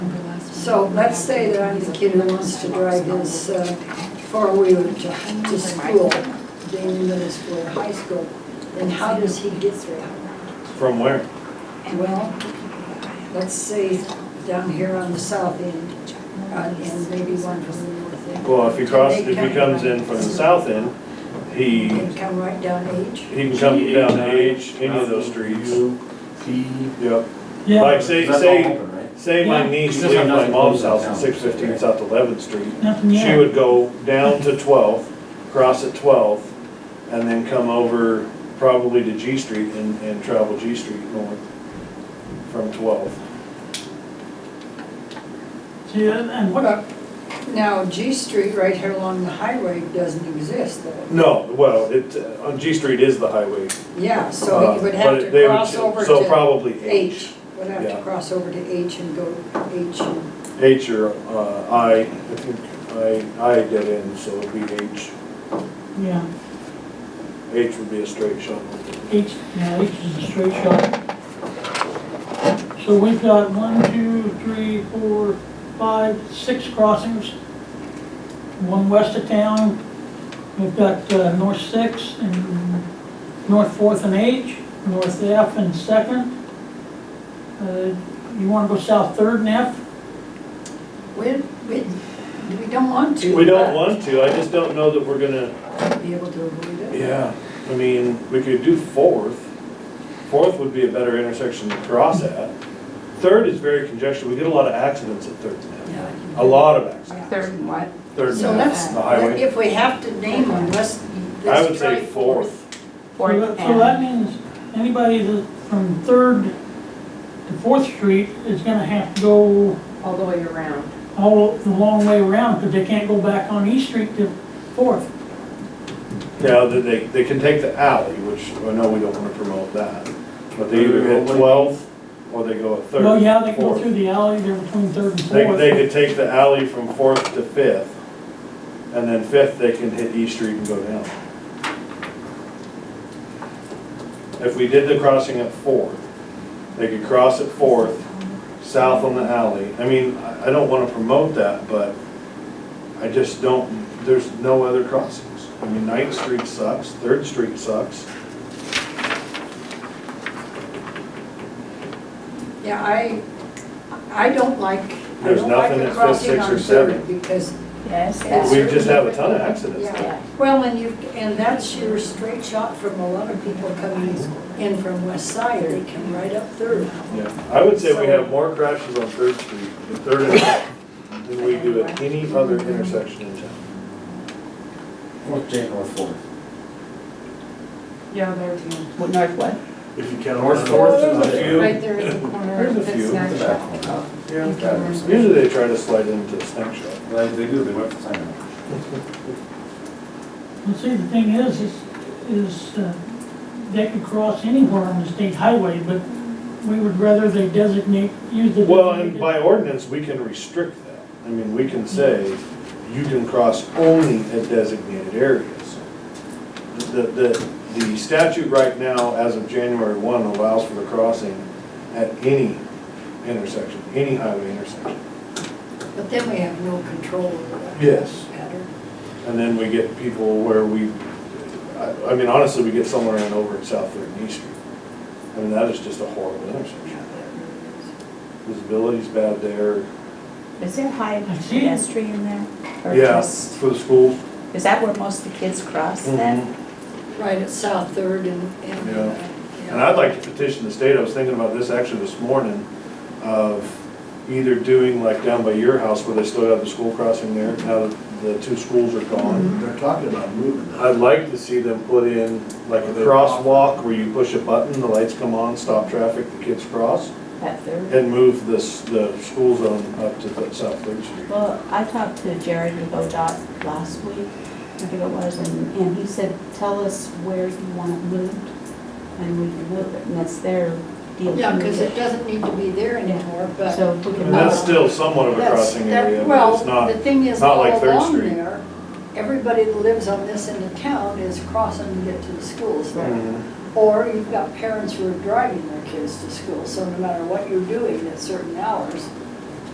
So let's say that I'm the kid who wants to drive his uh, four-wheeler to to school, being middle school or high school, then how does he get there? From where? Well, let's say down here on the south end, uh, and maybe one from the north end. Well, if he crosses, if he comes in from the south end, he, And come right down H. he can come down H, any of those streets. Yep. Yeah, Like say, That's all say, open, right? say my Yeah. niece Because that's leaves not my nothing mom's closes house at down. six fifteen South Eleventh Street. nothing She yet. would go down to twelve, cross at twelve, and then come over probably to G Street and, and travel G Street north from twelve. See, and- and what, Well, Now, G Street right here along the highway doesn't exist though. No, well, it, uh, on G Street is the highway. Yeah, so he would Uh, have but to they would- cross over So to probably H. H. Would have Yeah. to cross over to H and go H and, H or uh, I, I think I, I dead end, so it'd be H. yeah, H would be a straight shot. H, yeah, H is a straight shot. So we've got one, two, three, four, five, six crossings. One west of town, we've got uh, North Sixth and North Fourth and H, North F and Second. Uh, You wanna go south Third and F? we, we, we don't want to. We don't but want to, I just don't know that we're gonna, Be able to avoid it. yeah, I mean, we could do fourth. Fourth would be a better intersection to cross at. Third is very congested, we get a lot of accidents at Third and F. A lot of accidents, Third and what? Third So and let's, F, the highway. if we have to name one, let's, I let's would try say fourth. fourth, So that- Fourth So that and, means anybody that from Third to Fourth Street is gonna have to go all the way around. all the long way around, because they can't go back on East Street to Fourth. now, that they, they can take the alley, which I know we don't wanna promote that. But they either hit twelfth or they go at third. Well, yeah, they can go fourth. through the alley, they're between Third and They, they Fourth. could take the alley from Fourth to Fifth, and then Fifth, they can hit East Street and go down. If we did the crossing at Fourth, they could cross at Fourth, south on the alley. I mean, I, I don't wanna promote that, but I just don't, there's no other crossings. I mean, Ninth Street sucks, Third Street sucks. Yeah, I, I don't like, I There's don't like nothing the that fits crossing six or on seven. Third because, Yes. Yes. We just have a ton of accidents. yeah. Well, and you, and that's your straight shot from a lot of people coming in from West Side, they come right up Third. Yeah, I would say we have more crashes on Third Street, at Third and F, than we do at any other intersection in town. Fourth J, North Fourth. Yeah, there too. North what? If you count. North Fourth is a Usually few. Right there in the corner. There's a that's few. not The shut. back Oh, Yeah. they try to slide into a snapshot. They, they do, they went to sign up. Well, see, the thing is, is, is uh, they could cross anywhere on the state highway, but we would rather they designate, use the. Well, and designated- by ordinance, we can restrict that. I mean, we can say, you can cross only at designated areas. The, the, the statute right now, as of January one, allows for the crossing at any intersection, any highway intersection. But then we have no control over that. Yes. pattern. And then we get people where we, I, I mean, honestly, we get somewhere in over at South Third and East Street. I mean, that is just a horrible intersection. Visibility's bad there. Is there high pedestrian there? Or Yeah, just- for the Mm-hmm. schools. Is that where most of the kids cross then? Right at South Third and, and. uh, Yeah. yeah. And I'd like to petition the state, I was thinking about this actually this morning, of either doing like down by your house where they still have the school crossing there, now that the two schools are Mm-hmm. gone. They're talking about moving that. I'd like to see them put in like a crosswalk where you push a button, the lights come on, stop traffic, the kids cross. That third? And move this, the school zone up to the South Third Street. Well, I talked to Jared with ODOT last week, I think it was, and, and he said, tell us where you want it moved and we can move it, and that's their deal. to Yeah, move because it doesn't need to be there anymore, but. So if we can And that's move it. still somewhat of a That's- crossing that- area, but it's Well, not, the thing is, not all like Third along Street. there, everybody that lives on this end of town is crossing to get to the schools there. Mhm. Or you've got parents who are driving their kids to school, so no matter what you're doing at certain hours,